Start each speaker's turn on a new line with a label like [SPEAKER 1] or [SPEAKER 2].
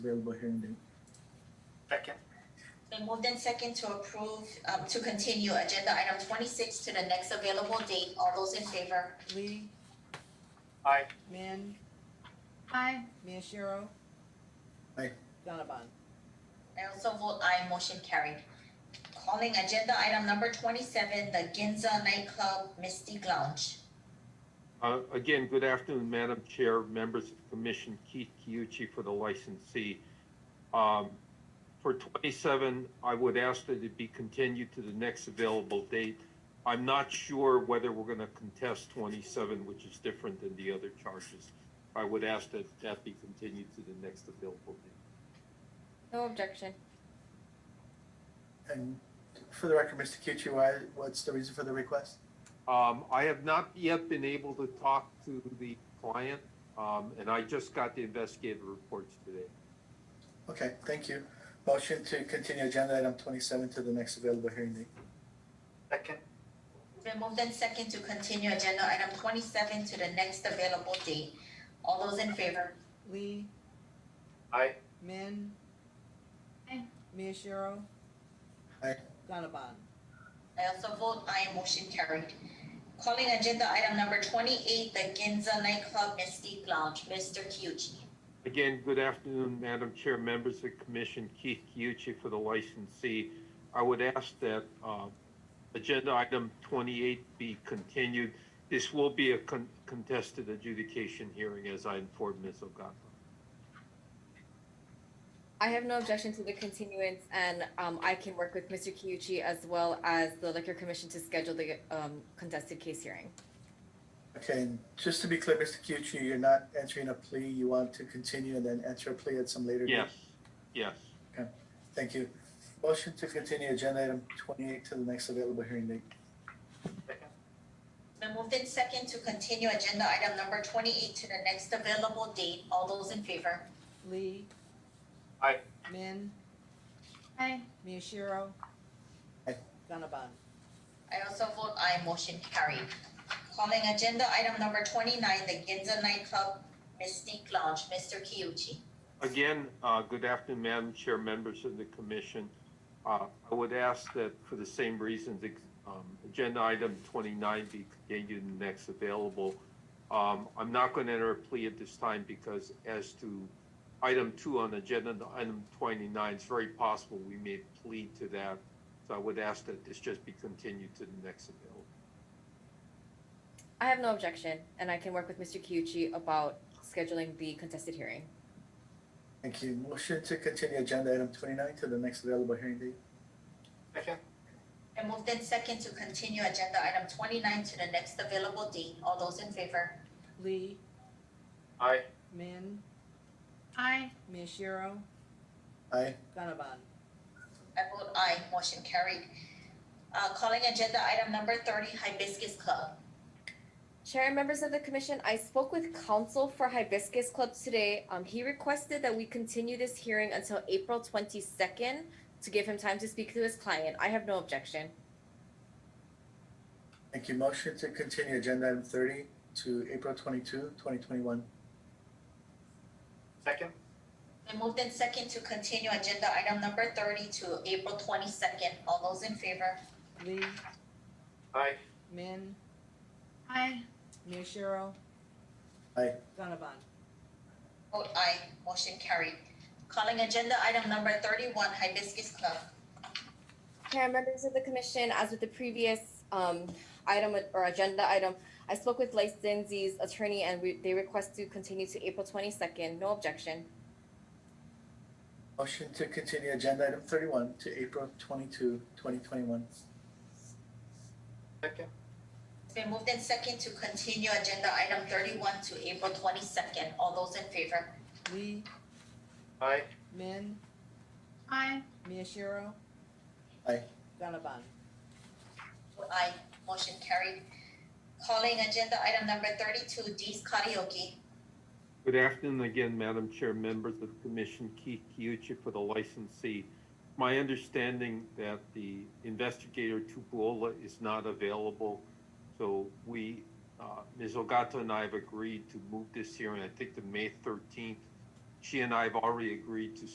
[SPEAKER 1] available hearing date.
[SPEAKER 2] Second.
[SPEAKER 3] Been moved in second to approve, um, to continue agenda item twenty-six to the next available date. All those in favor?
[SPEAKER 4] Lee,
[SPEAKER 2] Aye.
[SPEAKER 4] Min,
[SPEAKER 5] Aye.
[SPEAKER 4] Miyashiro.
[SPEAKER 1] Aye.
[SPEAKER 4] Gannabon.
[SPEAKER 3] I also vote aye, motion carried. Calling agenda item number twenty-seven, the Ginza nightclub Mystic Lounge.
[SPEAKER 6] Uh, Again, good afternoon, Madam Chair, members of the commission, Keith Kiuchi for the licensee. Um, For 27, I would ask that it be continued to the next available date. I'm not sure whether we're going to contest 27, which is different than the other charges. I would ask that that be continued to the next available date.
[SPEAKER 5] No objection.
[SPEAKER 1] And for the record, Mr. Kiuchi, why, what's the reason for the request?
[SPEAKER 6] Um, I have not yet been able to talk to the client, um, and I just got the investigative reports today.
[SPEAKER 1] Okay, thank you. Motion to continue agenda item twenty-seven to the next available hearing date.
[SPEAKER 2] Second.
[SPEAKER 3] Been moved in second to continue agenda item twenty-seven to the next available date. All those in favor?
[SPEAKER 4] Lee,
[SPEAKER 2] Aye.
[SPEAKER 4] Min.
[SPEAKER 5] Aye.
[SPEAKER 4] Miyashiro.
[SPEAKER 1] Aye.
[SPEAKER 4] Gannabon.
[SPEAKER 3] I also vote aye, motion carried. Calling agenda item number twenty-eight, the Ginza nightclub Mystic Lounge. Mister Kyuchi.
[SPEAKER 6] Again, good afternoon, Madam Chair, members of the commission, Keith Kiuchi for the licensee. I would ask that uh, agenda item 28 be continued. This will be a con- contested adjudication hearing, as I informed Ms. Ogata.
[SPEAKER 5] I have no objection to the continuance and um I can work with Mr. Kiuchi as well as the liquor commission to schedule the um contested case hearing.
[SPEAKER 1] Okay, and just to be clear, Mr. Kiuchi, you're not entering a plea. You want to continue and then enter a plea at some later date?
[SPEAKER 6] Yes, yes.
[SPEAKER 1] Thank you. Motion to continue agenda item twenty-eight to the next available hearing date.
[SPEAKER 2] Second.
[SPEAKER 3] Been moved in second to continue agenda item number twenty-eight to the next available date. All those in favor?
[SPEAKER 4] Lee.
[SPEAKER 2] Aye.
[SPEAKER 4] Min,
[SPEAKER 5] Aye.
[SPEAKER 4] Miyashiro.
[SPEAKER 1] Aye.
[SPEAKER 4] Gannabon.
[SPEAKER 3] I also vote aye, motion carried. Calling agenda item number twenty-nine, the Ginza nightclub Mystique Lounge, Mister Kiuchi.
[SPEAKER 6] Again, uh, good afternoon, Madam Chair, members of the commission. Uh, I would ask that for the same reasons, ex- um, agenda item 29 be continued and next available. Um, I'm not going to enter a plea at this time because as to item two on agenda item 29, it's very possible we may plead to that. So I would ask that this just be continued to the next available.
[SPEAKER 5] I have no objection and I can work with Mr. Kiuchi about scheduling the contested hearing.
[SPEAKER 1] Thank you. Motion to continue agenda item twenty-nine to the next available hearing date.
[SPEAKER 2] Second.
[SPEAKER 3] And moved in second to continue agenda item twenty-nine to the next available date. All those in favor?
[SPEAKER 4] Lee,
[SPEAKER 2] Aye.
[SPEAKER 4] Min,
[SPEAKER 5] Aye.
[SPEAKER 4] Miyashiro.
[SPEAKER 1] Aye.
[SPEAKER 4] Gannabon.
[SPEAKER 3] I vote aye, motion carried. Uh, calling agenda item number thirty, Hibiscus Club.
[SPEAKER 5] Chair and members of the commission, I spoke with counsel for Hibiscus Club today. Um, he requested that we continue this hearing until April twenty-second to give him time to speak to his client. I have no objection.
[SPEAKER 1] Thank you. Motion to continue agenda item thirty to April 22, 2021.
[SPEAKER 2] Second.
[SPEAKER 3] Then moved in second to continue agenda item number thirty to April twenty-second. All those in favor?
[SPEAKER 4] Lee,
[SPEAKER 2] Aye.
[SPEAKER 4] Min,
[SPEAKER 5] Aye.
[SPEAKER 4] Miyashiro.
[SPEAKER 1] Aye.
[SPEAKER 4] Gannabon.
[SPEAKER 3] Vote aye, motion carried. Calling agenda item number thirty-one, Hibiscus Club.
[SPEAKER 5] Chair and members of the commission, as with the previous um item or agenda item, I spoke with licensee's attorney and we, they request to continue to April twenty-second. No objection.
[SPEAKER 1] Motion to continue agenda item thirty-one to April 22, 2021.
[SPEAKER 2] Second.
[SPEAKER 3] It's been moved in second to continue agenda item thirty-one to April twenty-second. All those in favor?
[SPEAKER 4] Lee,
[SPEAKER 2] Aye.
[SPEAKER 4] Min,
[SPEAKER 5] Aye.
[SPEAKER 4] Miyashiro.
[SPEAKER 1] Aye.
[SPEAKER 4] Gannabon.
[SPEAKER 3] Vote aye, motion carried. Calling agenda item number thirty-two, Dee's Karaoke.
[SPEAKER 6] Good afternoon again, Madam Chair, members of the commission, Keith Kiuchi for the licensee. My understanding that the investigator Tupuola is not available, so we, uh, Ms. Ogata and I have agreed to move this hearing, I think to May thirteenth, she and I have already agreed to